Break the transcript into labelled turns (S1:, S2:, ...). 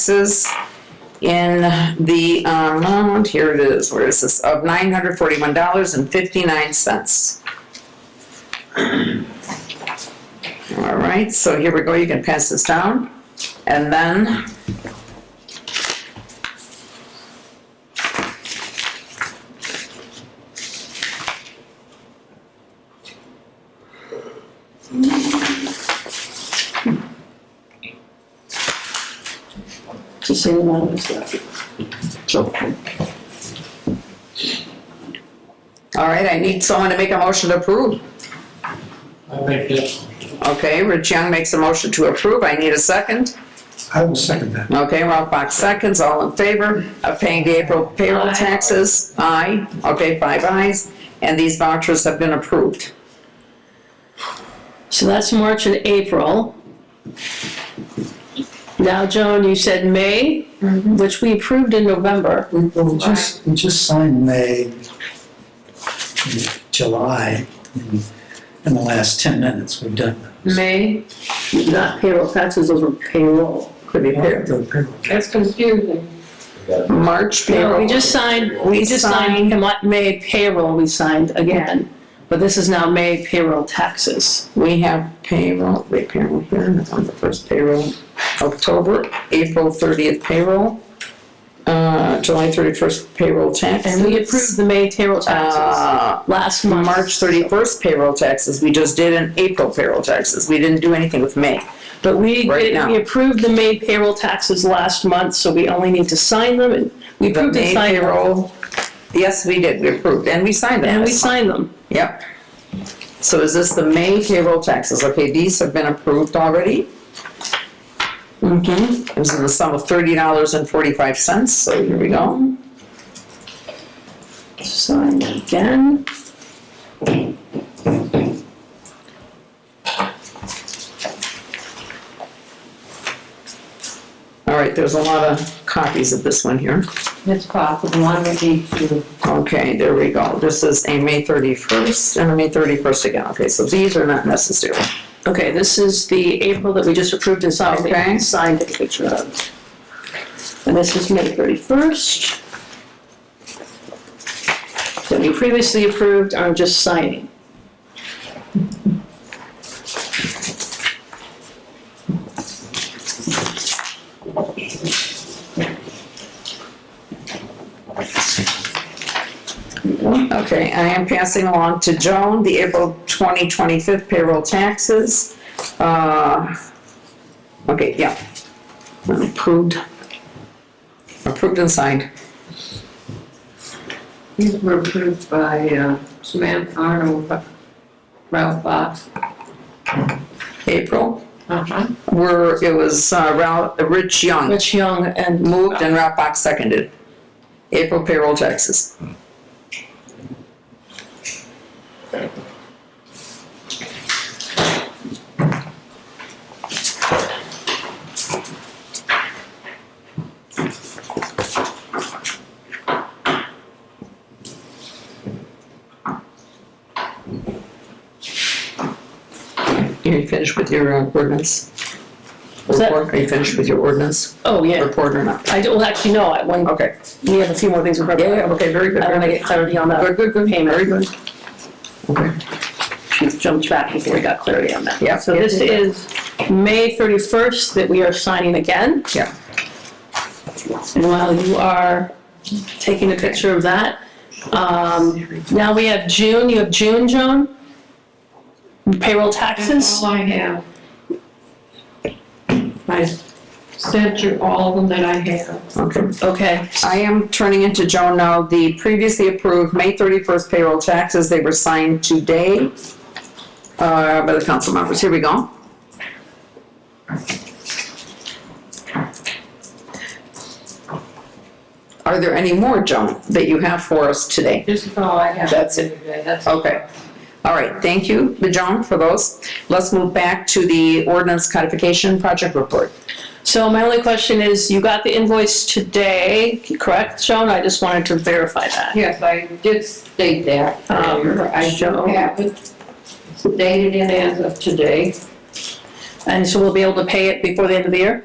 S1: taxes in the amount, here it is, where is this, of nine hundred forty-one dollars and fifty-nine cents. All right, so here we go, you can pass this down, and then.
S2: the same amount as that. So,
S1: All right, I need someone to make a motion to approve.
S3: I make that.
S1: Okay, Rich Young makes a motion to approve, I need a second.
S3: I will second that.
S1: Okay, Ralph Box seconds, all in favor of paying the April payroll taxes? Aye. Okay, five ayes, and these vouchers have been approved.
S2: so that's March and April. Now, Joan, you said May,
S1: Mm-hmm.
S2: which we approved in November.
S4: Well, we just, we just signed May, and July, in in the last 10 minutes, we've done.
S2: May, not payroll taxes, those were payroll.
S1: Could be paired.
S4: The payroll.
S5: That's confusing.
S1: March
S2: No, we
S1: payroll.
S2: just signed,
S1: We
S2: we just signed Ma- May payroll, we signed again. But this is now May payroll taxes.
S1: We have payroll, wait, payroll here, that's on the first payroll, October, April thirtieth payroll, uh, July thirty-first payroll taxes.
S2: And we approved the May payroll taxes
S1: Uh,
S2: last month.
S1: March thirty-first payroll taxes, we just did an April payroll taxes, we didn't do anything with May.
S2: But we,
S1: Right
S2: did-
S1: now.
S2: we approved the May payroll taxes last month, so we only need to sign them, and we
S1: The
S2: approved and
S1: May
S2: signed them.
S1: payroll, yes, we did, we approved, and we signed it.
S2: And we signed them.
S1: Yep. So is this the May payroll taxes? Okay, these have been approved already. Mm-hmm. It was in the sum of thirty dollars and forty-five cents, so here we go.
S2: Sign again.
S1: All right, there's a lot of copies of this one here.
S5: It's possible, I'm gonna need to.
S1: Okay, there we go. This is a May thirty-first and a May thirty-first again. Okay, so these are not necessary.
S2: Okay, this is the April that we just approved and signed,
S1: Okay.
S2: signed a picture of. And this is May thirty-first. That we previously approved, I'm just signing.
S1: Okay, I am passing along to Joan the April 2025 payroll taxes. Uh, Okay, yeah. Approved. Approved and signed.
S5: These were approved by uh, Samantha Arnold, Ralph Box.
S1: April,
S5: Uh-huh.
S1: where it was uh, Ralph, Rich Young
S2: Rich Young and
S1: moved and Ralph Box seconded. April payroll taxes. Are you finished with your uh, ordinance?
S2: Was that-
S1: Report? Are you finished with your ordinance?
S2: Oh, yeah.
S1: report or not.
S2: I, do- well, actually, no, I, one,
S1: Okay.
S2: we have a few more things we're.
S1: Yeah, yeah, okay, very good.
S2: I want to get clarity on that.
S1: Good, good, good.
S2: Payment.
S1: Very good. Okay.
S2: She jumped back before we got clarity on that.
S1: Yeah.
S2: So this is May 31st that we are signing again.
S1: Yeah.
S2: And while you are taking a picture of that, um, now we have June, you have June, Joan? Payroll
S5: That's
S2: taxes?
S5: all I have. I sent you all of them that I have.
S1: Okay.
S2: Okay,
S1: I am turning into Joan now. The previously approved May 31st payroll taxes, they were signed today uh, by the council members. Here we go. Are there any more, Joan, that you have for us today?
S5: This is all I have.
S1: That's it.
S5: That's
S1: Okay. All right, thank you, Joan, for those. Let's move back to the ordinance codification project report.
S2: so my only question is, you got the invoice today, correct, Joan? I just wanted to verify that.
S5: Yes, I did state that.
S2: Um,
S5: earlier. I
S2: so-
S5: don't have it dated in as of today.
S2: And so we'll be able to pay it before the end of the year?